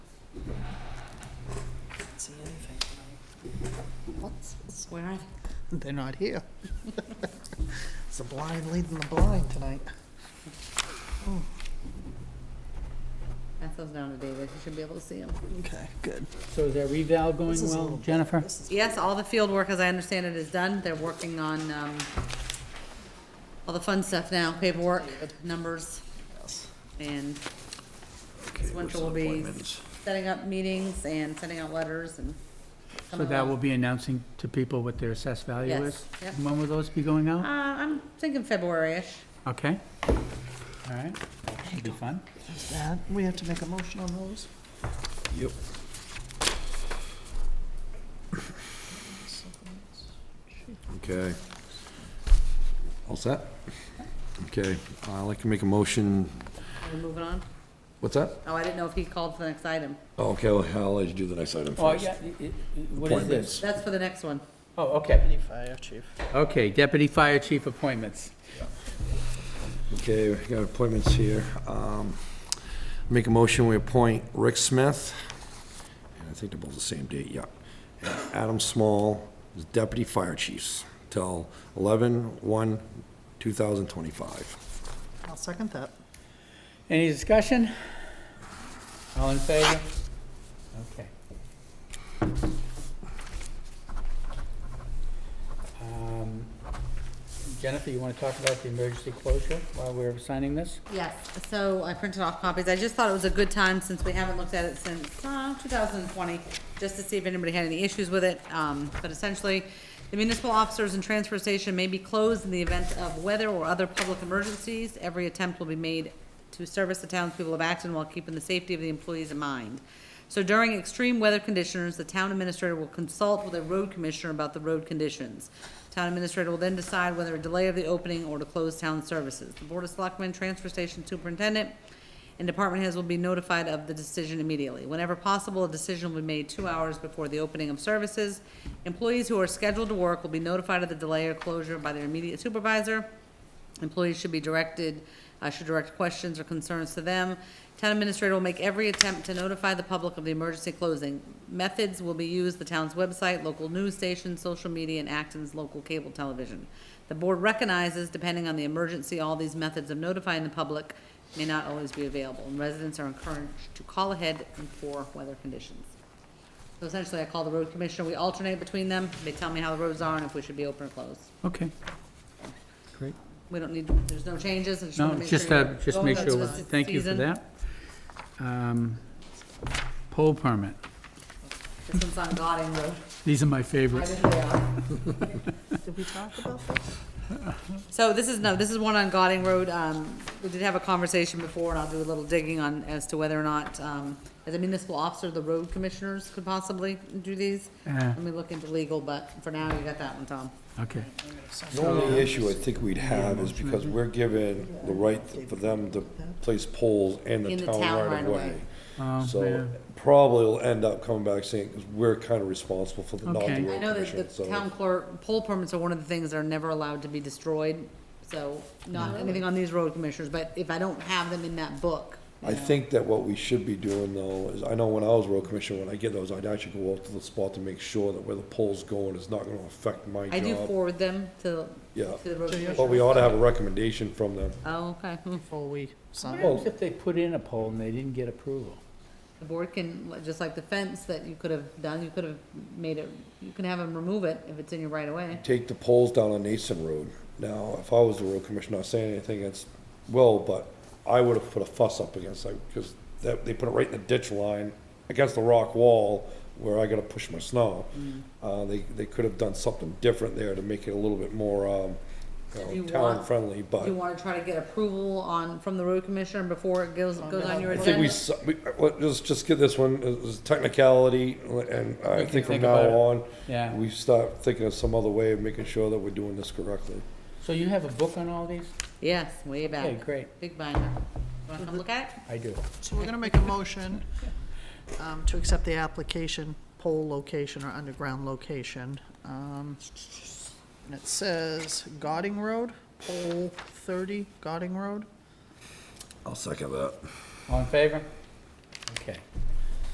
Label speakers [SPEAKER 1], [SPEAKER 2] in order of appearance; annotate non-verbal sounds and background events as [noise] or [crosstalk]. [SPEAKER 1] Where are they?
[SPEAKER 2] They're not [laughs] here. It's the blind leading the blind tonight.
[SPEAKER 1] Pass those down to David, he should be able to see them.
[SPEAKER 2] Okay, good.
[SPEAKER 3] So is that reval going
[SPEAKER 2] This is a
[SPEAKER 3] well,
[SPEAKER 2] little-
[SPEAKER 3] Jennifer?
[SPEAKER 2] This is-
[SPEAKER 1] Yes, all the field work, as I understand it, is done. They're working on, um, all the fun stuff now, paperwork, numbers,
[SPEAKER 2] yes.
[SPEAKER 1] and
[SPEAKER 4] Okay,
[SPEAKER 1] winter
[SPEAKER 4] what's the
[SPEAKER 1] will be-
[SPEAKER 4] appointments?
[SPEAKER 1] setting up meetings and sending out letters and.
[SPEAKER 3] So that will be announcing to people what their assessed value
[SPEAKER 1] Yes,
[SPEAKER 3] is?
[SPEAKER 1] yep.
[SPEAKER 3] When will those be going
[SPEAKER 1] Uh,
[SPEAKER 3] out?
[SPEAKER 1] I'm thinking February-ish.
[SPEAKER 3] Okay. All right. Should be fun.
[SPEAKER 2] There's that. We have to make a motion on those.
[SPEAKER 4] Yep. Okay. All set? Okay, I'd like to make a motion,
[SPEAKER 1] Are we moving on?
[SPEAKER 4] what's that?
[SPEAKER 1] Oh, I didn't know if he called for the next item.
[SPEAKER 4] Oh, Okay, well, I'll let you do the next item
[SPEAKER 3] Oh,
[SPEAKER 4] first.
[SPEAKER 3] yeah, i- i- what is this?
[SPEAKER 1] That's for the next one.
[SPEAKER 3] Oh, okay.
[SPEAKER 2] Any fire chief.
[SPEAKER 3] Okay, deputy fire chief appointments.
[SPEAKER 4] Okay, we got appointments here. Um, Make a motion, we appoint Rick Smith, and I think they're both the same date, yeah. And Adam Small as Deputy Fire Chiefs till 11/1/2025.
[SPEAKER 2] I'll second that.
[SPEAKER 3] Any discussion? All in favor? Okay. Um, Jennifer, you want to talk about the emergency closure while we're signing this?
[SPEAKER 1] Yes, so I printed off copies. I just thought it was a good time since we haven't looked at it since, uh, two thousand and twenty, just to see if anybody had any issues with it. Um, but essentially, the municipal officers and transfer station may be closed in the event of weather or other public emergencies. Every attempt will be made to service the townspeople of Acton while keeping the safety of the employees in mind. So during extreme weather conditions, the town administrator will consult with a road commissioner about the road conditions. Town administrator will then decide whether a delay of the opening or to close town services. The Board of Selectmen, Transfer Station Superintendent, and department heads will be notified of the decision immediately. Whenever possible, a decision will be made two hours before the opening of services. Employees who are scheduled to work will be notified of the delay or closure by their immediate supervisor. Employees should be directed, uh, should direct questions or concerns to them. Town administrator will make every attempt to notify the public of the emergency closing. Methods will be used, the town's website, local news station, social media, and Acton's local cable television. The board recognizes, depending on the emergency, all these methods of notifying the public may not always be available, and residents are encouraged to call ahead and for weather conditions. So essentially, I call the road commissioner, we alternate between them, they tell me how the roads are and if we should be open or closed.
[SPEAKER 3] Okay. Great.
[SPEAKER 1] We don't need, there's no changes, I just
[SPEAKER 3] No,
[SPEAKER 1] wanna make sure.
[SPEAKER 3] just, uh,
[SPEAKER 1] you're
[SPEAKER 3] just
[SPEAKER 1] going
[SPEAKER 3] make
[SPEAKER 1] up to
[SPEAKER 3] sure,
[SPEAKER 1] the se-
[SPEAKER 3] thank you for
[SPEAKER 1] season.
[SPEAKER 3] that. Um, Pole permit,
[SPEAKER 1] This one's on Gauding Road,
[SPEAKER 3] these are my
[SPEAKER 1] right
[SPEAKER 3] favorites.
[SPEAKER 1] in there.
[SPEAKER 2] Did we talk about this?
[SPEAKER 1] So this is, no, this is one on Gauding Road, um, we did have a conversation before, and I'll do a little digging on, as to whether or not, um, as a municipal officer, the road commissioners could possibly do these.
[SPEAKER 3] Uh.
[SPEAKER 1] Let me look into legal, but for now, you got that one, Tom.
[SPEAKER 3] Okay,
[SPEAKER 4] The only issue I think we'd have is because we're given the right for them to place poles in the
[SPEAKER 1] In the
[SPEAKER 4] town
[SPEAKER 1] town
[SPEAKER 4] right
[SPEAKER 1] right
[SPEAKER 4] of
[SPEAKER 1] of
[SPEAKER 4] way.
[SPEAKER 1] way.
[SPEAKER 3] Oh, yeah.
[SPEAKER 4] So probably will end up coming back saying, because we're kind of responsible for the, not
[SPEAKER 3] Okay.
[SPEAKER 4] the
[SPEAKER 3] I
[SPEAKER 1] I
[SPEAKER 4] road
[SPEAKER 1] know
[SPEAKER 4] commission,
[SPEAKER 1] that the
[SPEAKER 4] so-
[SPEAKER 1] town clerk, poll permits are one of the things that are never allowed to be destroyed, so not anything on these road commissioners, but if I don't have them in that book.
[SPEAKER 4] I think that what we should be doing though is, I know when I was road commissioner, when I get those, I'd actually go out to the spot to make sure that where the pole's going is not gonna affect my
[SPEAKER 1] I do
[SPEAKER 4] job.
[SPEAKER 1] forward them to,
[SPEAKER 4] Yeah,
[SPEAKER 1] to the road
[SPEAKER 4] but
[SPEAKER 1] commissioner.
[SPEAKER 4] we ought to have a recommendation from them.
[SPEAKER 1] Oh, okay, [laughs] hmm.
[SPEAKER 2] Before we sign.
[SPEAKER 4] Well-
[SPEAKER 3] What if they put in a pole and they didn't get approval?
[SPEAKER 1] the board can, just like the fence that you could have done, you could have made it, you can have them remove it if it's in your right of way.
[SPEAKER 4] Take the poles down on Nason Road. Now, if I was the road commissioner, not saying anything against Will, but I would have put a fuss up against that, because that, they put it right in the ditch line against the rock wall where I gotta push my snow.
[SPEAKER 1] Mm.
[SPEAKER 4] Uh, they, they could have done something different there to make it a little bit more, um,
[SPEAKER 1] Do
[SPEAKER 4] you
[SPEAKER 1] you
[SPEAKER 4] know,
[SPEAKER 1] want-
[SPEAKER 4] town friendly, but.
[SPEAKER 1] Do you wanna try to get approval on, from the road commissioner before it goes, goes on your
[SPEAKER 4] I think
[SPEAKER 1] agenda?
[SPEAKER 4] we, s- we, uh, let- let's just get this one, as technicality, and I
[SPEAKER 3] can
[SPEAKER 4] think from
[SPEAKER 3] think
[SPEAKER 4] now
[SPEAKER 3] about it.
[SPEAKER 4] on,
[SPEAKER 3] Yeah.
[SPEAKER 4] we start thinking of some other way of making sure that we're doing this correctly.
[SPEAKER 3] So you have a book on all these?
[SPEAKER 1] Yes, way
[SPEAKER 3] Okay,
[SPEAKER 1] back,
[SPEAKER 3] great,
[SPEAKER 1] big binder. You Wanna come look at it?
[SPEAKER 3] I do.
[SPEAKER 2] So we're gonna make a motion um, to accept the application, pole location or underground location. Um, And it says Gauding Road, pole thirty, Gauding Road.
[SPEAKER 4] I'll second that.
[SPEAKER 3] All in favor? Okay.